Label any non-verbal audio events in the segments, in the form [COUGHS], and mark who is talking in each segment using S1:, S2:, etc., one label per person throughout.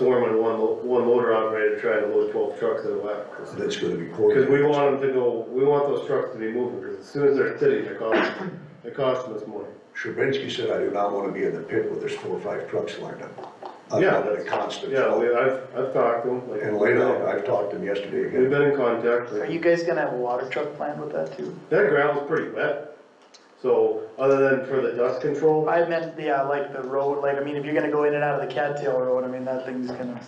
S1: foreman, one, mo- one motor operator trying to load twelve trucks in a lap.
S2: that's gonna be
S1: Cause
S2: court.
S1: we want them to go, we want those trucks to be moving, cause as soon as they're sitting, they're costing, they're costing us money.
S2: Sherbinsky said, I do not wanna be in the pit where there's four or five trucks lined up. I've
S1: Yeah,
S2: got a
S1: that's-
S2: constant.
S1: Yeah, we, I've, I've talked to them, like.
S2: And later, I've talked to him yesterday
S1: We've
S2: again.
S1: been in contact,
S3: Are
S1: like,
S3: you guys gonna have a water truck planned with that too?
S1: that gravel's pretty wet, so, other than for the dust control,
S3: I meant, yeah, like the road, like, I mean, if you're gonna go in and out of the cattail road, I mean, that thing's gonna,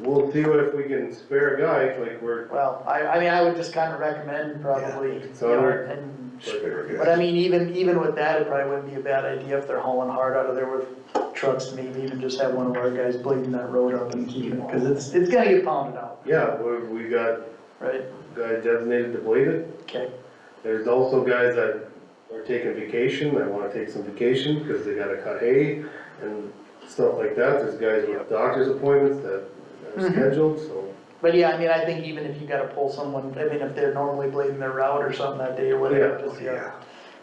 S1: we'll see if we can spare a guy, like, we're,
S3: well, I, I mean, I would just kinda recommend probably, you
S1: So
S3: know,
S1: we're-
S3: and,
S2: Spare
S3: but
S2: gas.
S3: I mean, even, even with that, it probably wouldn't be a bad idea if they're hauling hard out of there with trucks, maybe even just have one of our guys blading that road up and keeping it, cause it's, it's gonna get pounded out,
S1: yeah, we're, we got
S3: right?
S1: a guy designated to blade it.
S3: Okay,
S1: There's also guys that are taking vacation, that wanna take some vacation, cause they gotta cut hay and stuff like that, there's guys with doctor's appointments that are
S3: Mhm.
S1: scheduled, so.
S3: but yeah, I mean, I think even if you gotta pull someone, I mean, if they're normally blading their route or something that day or whatever,
S1: Yeah,
S3: just, yeah.
S2: Yeah,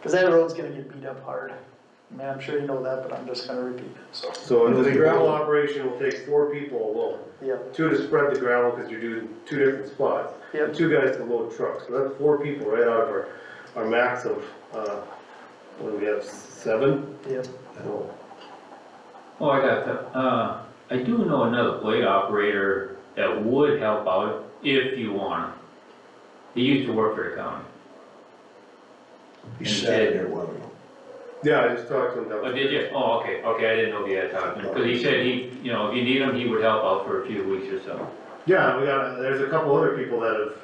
S3: Cause that road's gonna get beat up hard. I mean, I'm sure you know that, but I'm just gonna repeat it, so.
S1: So and the gravel operation will take four people alone,
S3: Yep,
S1: two to spread the gravel, cause you're doing two different spots. and
S3: yep,
S1: Two guys to load trucks, so that's four people right out of our, our max of, uh, what do we have, seven?
S3: yep.
S1: So,
S4: Oh, I got that. Uh, I do know another blade operator that would help out if you want him. He used to work for the county.
S2: he sat in there one of them.
S1: Yeah, I just talked to him.
S4: Oh, did you? Oh, okay, okay, I didn't know he had time. Because he said he, you know, if you need him, he would help out for a few weeks or so.
S1: Yeah, we got, there's a couple other people that have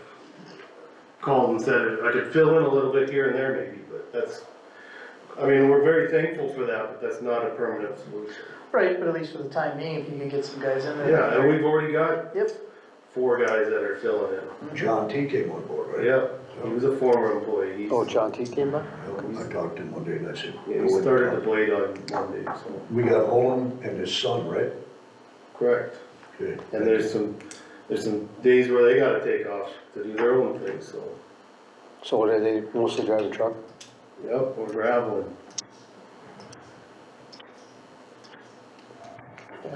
S1: called and said, I could fill in a little bit here and there maybe, but that's, I mean, we're very thankful for that, but that's not a permanent solution.
S3: Right, but at least for the time being, if you can get some guys in there.
S1: Yeah, and we've already got
S3: Yep,
S1: four guys that are filling in.
S2: John T came on board, right?
S1: Yeah, he was a former employee. He's-
S5: Oh, John T came by?
S2: I talked to him one day and I said.
S1: Yeah, he started the blade on Monday, so.
S2: We got Holm and his son, right?
S1: Correct.
S2: Okay.
S1: And there's some, there's some days where they gotta take off to do their own thing, so.
S5: So what are they mostly driving truck?
S1: Yep, we're graveling.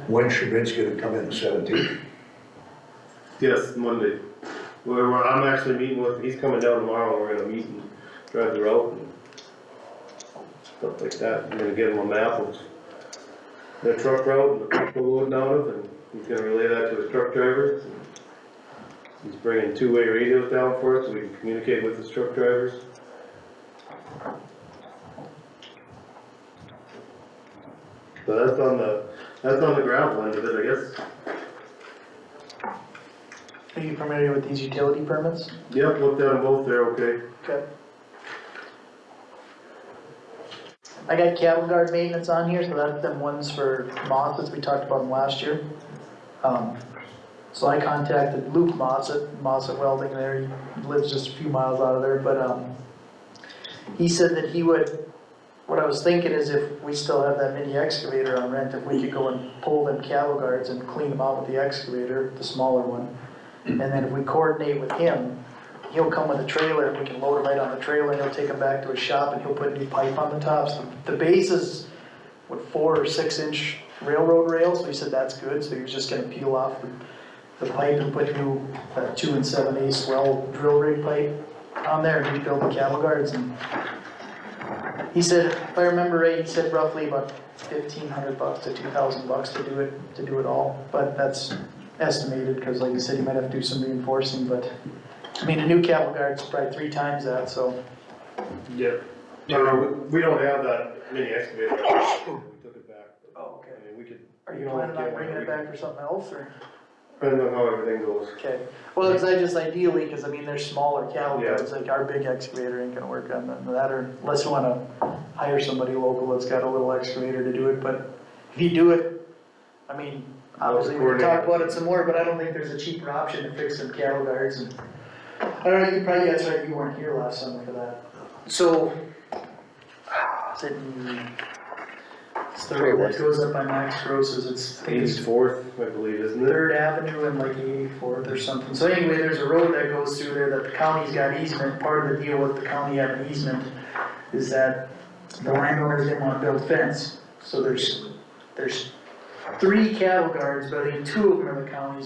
S2: When Shabinsky gonna come in, the seventeenth?
S1: Yes, Monday. We're, we're- I'm actually meeting with, he's coming down tomorrow, we're gonna meet and drive the route and stuff like that. I'm gonna give him a map of the truck route and the truck we're loading out of, and he's gonna relay that to his truck drivers. He's bringing two-way radios down for us, so we can communicate with his truck drivers. So that's on the, that's on the gravel end of it, I guess.
S3: are you familiar with these utility permits?
S1: Yep, looked at them both, they're okay.
S3: Okay. I got cattle guard maintenance on here, so that's them ones for Moss, as we talked about them last year. Um, So I contacted Luke Moss at, Moss at Welding there, he lives just a few miles out of there, but, um, he said that he would, what I was thinking is if we still have that mini excavator on rent, if we could go and pull them cattle guards and clean them out with the excavator, the smaller one. And then if we coordinate with him, he'll come with a trailer, and we can load it right on the trailer, and he'll take them back to his shop, and he'll put new pipe on the tops. The base is, what, four or six inch railroad rail, so he said that's good, so he was just gonna peel off the- the pipe and put new, uh, two and seven eighths well drill rig pipe on there, and rebuild the cattle guards, and he said, if I remember right, he said roughly about fifteen hundred bucks to two thousand bucks to do it, to do it all, but that's estimated, cause like you said, he might have to do some reinforcing, but I mean, a new cattle guard's probably three times that, so,
S1: Yep. we don't have that mini excavator, [COUGHS] we took it back.
S3: Oh, okay.
S1: I mean, we could.
S3: are you
S1: we don't
S3: planning
S1: get
S3: on
S1: one.
S3: bringing it back for something else, or?
S1: Depends on how everything goes.
S3: Okay, well, cause I just ideally, cause I mean, they're smaller cattle
S1: Yeah.
S3: guards, like our big excavator ain't gonna work on none of that, or unless you wanna hire somebody local that's got a little excavator to do it, but if you do it, I mean, obviously, we can talk about it some more, but I don't think there's a cheaper option to fix some cattle guards and. I don't know, you probably, that's right, you weren't here last summer for that, so. Is it in- It's the road that goes up by Max Gross's, it's, I think it's
S1: Eighty-fourth, I believe, isn't it?
S3: Third Avenue and like eighty-fourth or something, so anyway, there's a road that goes through there that the county's got easement, part of the deal with the county having easement is that the landowners didn't wanna build fence, so there's, there's three cattle guards, but I think two of them are the county's